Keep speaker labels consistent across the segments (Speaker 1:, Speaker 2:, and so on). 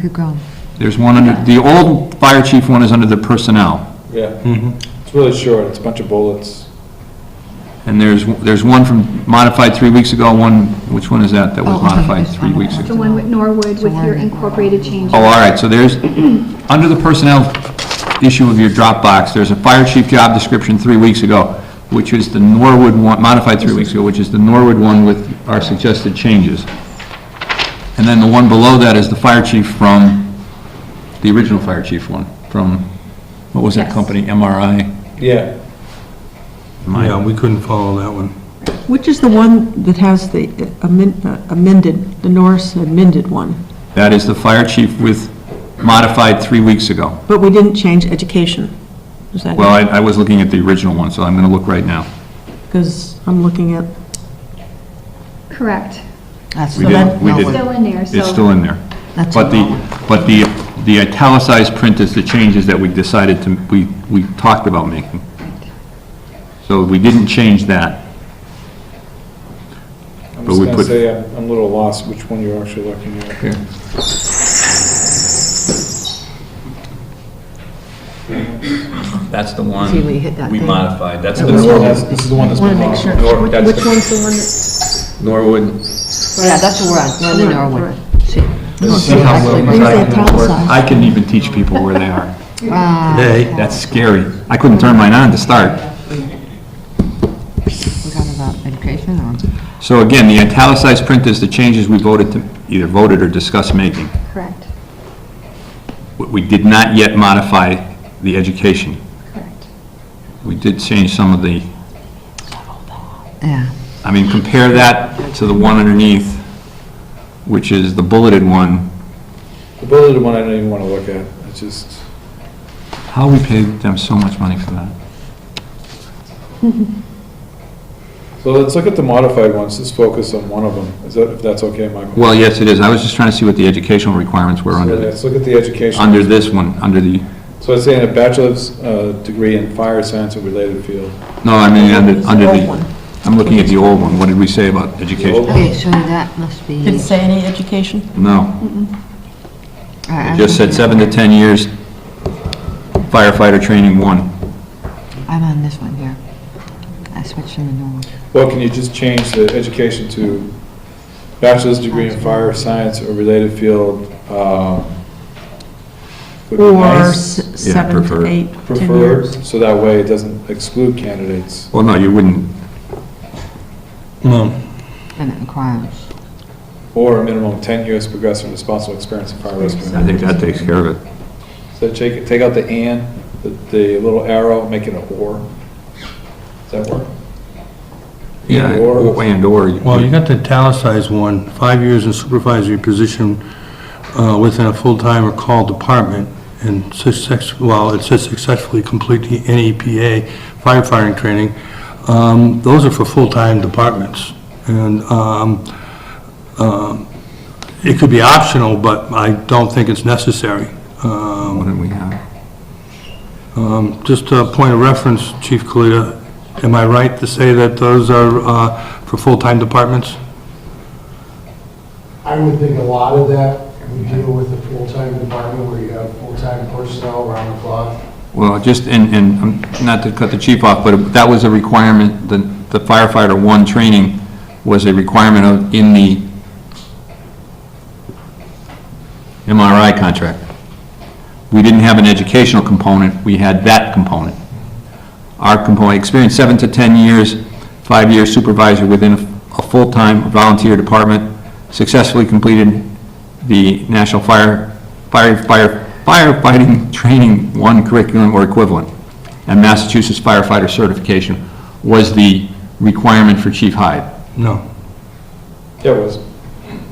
Speaker 1: Pugh
Speaker 2: There's one under, the old fire chief one is under the personnel,
Speaker 3: Yeah, it's really short, it's a bunch of bullets.
Speaker 2: and there's, there's one from modified three weeks ago, one, which one is that, that
Speaker 1: Oh,
Speaker 2: was
Speaker 1: okay,
Speaker 2: modified
Speaker 1: it's
Speaker 2: three weeks
Speaker 1: modified.
Speaker 2: ago?
Speaker 4: The one with Norwood with your
Speaker 1: Norwood.
Speaker 4: incorporated changes.
Speaker 2: Oh, all right, so there's, under the personnel issue of your Dropbox, there's a fire chief job description three weeks ago, which is the Norwood one, modified three weeks ago, which is the Norwood one with our suggested changes. And then the one below that is the fire chief from, the original fire chief one, from, what was that
Speaker 4: Yes.
Speaker 2: company, MRI?
Speaker 3: Yeah,
Speaker 5: Yeah, we couldn't follow that one.
Speaker 6: Which is the one that has the amen- amended, the Norris amended one?
Speaker 2: That is the fire chief with modified three weeks ago.
Speaker 6: But we didn't change education. Is that
Speaker 2: Well, I, I was looking at the original one, so I'm gonna look right now.
Speaker 6: Because I'm looking at,
Speaker 4: Correct.
Speaker 1: That's
Speaker 2: We
Speaker 1: the
Speaker 2: did-
Speaker 1: one-
Speaker 2: we
Speaker 1: no,
Speaker 2: did.
Speaker 1: wait,
Speaker 4: Still in there, so.
Speaker 2: Oh. It's still in there.
Speaker 1: That's
Speaker 2: But the,
Speaker 1: the one.
Speaker 2: but the, the italicized print is the changes that we decided to, we, we talked about making. So we didn't change that.
Speaker 3: I'm
Speaker 2: But
Speaker 3: just
Speaker 2: we
Speaker 3: gonna
Speaker 2: put-
Speaker 3: say uh, I'm I'm a little lost which one you're actually looking at.
Speaker 2: Here.
Speaker 7: That's the one
Speaker 1: See, we hit that
Speaker 7: we
Speaker 1: thing.
Speaker 7: modified, that's
Speaker 3: This one
Speaker 7: the
Speaker 3: has- this is the one that's
Speaker 1: Wanna
Speaker 3: been
Speaker 1: make sure.
Speaker 3: modified.
Speaker 7: Nor-
Speaker 1: Which-
Speaker 7: that's
Speaker 1: Which
Speaker 7: the-
Speaker 1: one's the one? that-
Speaker 7: Norwood.
Speaker 1: Yeah, that's the one, not the Norwood. See,
Speaker 2: See how well we-
Speaker 1: Things that italicize.
Speaker 2: I can even teach people where they are.
Speaker 1: Ah,
Speaker 5: Hey.
Speaker 2: That's scary. I couldn't turn mine on to start.
Speaker 1: We're talking about education or?
Speaker 2: So again, the italicized print is the changes we voted to, either voted or discussed making.
Speaker 4: Correct,
Speaker 2: We- We did not yet modify the education.
Speaker 4: correct.
Speaker 2: We did change some of the,
Speaker 1: Yeah.
Speaker 2: I mean, compare that to the one underneath, which is the bulleted one.
Speaker 3: The bulleted one I don't even wanna look at, it's just,
Speaker 2: How we paid them so much money for that?
Speaker 3: so let's look at the modified ones, just focus on one of them, is that, if that's okay, Michael?
Speaker 2: Well, yes, it is. I was just trying to see what the educational requirements were
Speaker 3: So
Speaker 2: under, the-
Speaker 3: Let's look at the education.
Speaker 2: under this one, under the,
Speaker 3: So it's saying a bachelor's uh, degree in fire science or related field.
Speaker 2: no, I mean, under, under
Speaker 6: old one.
Speaker 2: the, I'm looking at the old one. What did we say about education?
Speaker 3: old-
Speaker 1: Okay, so that must be.
Speaker 6: did it say any education?
Speaker 2: No,
Speaker 1: All right,
Speaker 2: it
Speaker 1: I'm
Speaker 2: just said
Speaker 1: looking-
Speaker 2: seven to 10 years firefighter training one.
Speaker 1: I'm on this one here. I switched from the Norwood.
Speaker 3: Well, can you just change the education to bachelor's degree in fire science or related field, um, would be
Speaker 6: Or
Speaker 3: nice.
Speaker 6: s-
Speaker 2: Yeah,
Speaker 6: seven to
Speaker 2: preferred.
Speaker 6: eight, 10
Speaker 3: preferred,
Speaker 6: years?
Speaker 3: so that way it doesn't exclude candidates.
Speaker 2: Well, no, you wouldn't,
Speaker 5: No,
Speaker 1: And it requires.
Speaker 3: Or a minimum of 10 years progressive responsible experience in fire rescue.
Speaker 2: I think that takes care of it.
Speaker 3: So take, take out the and, the, the little arrow, make it a or. Does that work?
Speaker 2: Yeah,
Speaker 3: Or-
Speaker 2: and or.
Speaker 5: well, you got the italicized one, five years in supervisory position uh, within a full-time or call department, and success, well, it says successfully complete the NEPA firefighting training. Um, Those are for full-time departments, and um, um, it could be optional, but I don't think it's necessary. Um,
Speaker 2: What did we have?
Speaker 5: Um, Just a point of reference, Chief Kalita, am I right to say that those are uh, for full-time departments?
Speaker 8: I would think a lot of that would deal with the full-time department where you have full-time personnel around the clock.
Speaker 2: Well, just, and, and, um, not to cut the chief off, but that was a requirement, the the firefighter one training was a requirement of, in the MRI contract. We didn't have an educational component, we had that component. Our component, experience seven to 10 years, five-year supervisor within a a full-time volunteer department, successfully completed the National Fire, Fire, Fire, Firefighting Training One curriculum or equivalent, and Massachusetts firefighter certification was the requirement for Chief Hyde.
Speaker 5: No.
Speaker 3: Yeah, it was.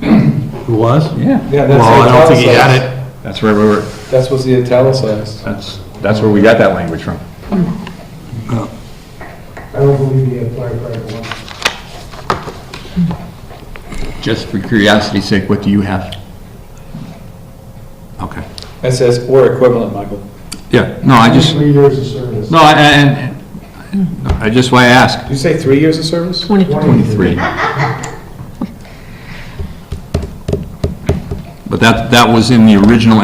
Speaker 5: It was?
Speaker 2: Yeah.
Speaker 3: Yeah, that's
Speaker 5: Well, I don't think he
Speaker 3: italicized.
Speaker 5: had it.
Speaker 2: That's where we were,
Speaker 3: That's what's the italicized.
Speaker 2: that's, that's where we got that language from.
Speaker 8: I don't believe you have firefighter one.
Speaker 2: Just for curiosity's sake, what do you have? Okay.
Speaker 3: It says or equivalent, Michael.
Speaker 2: Yeah, no, I just,
Speaker 8: Three years of service.
Speaker 2: no, I- I- and, I just, why I ask.
Speaker 3: Did you say three years of service?
Speaker 6: 20
Speaker 2: 23. But that, that was in the original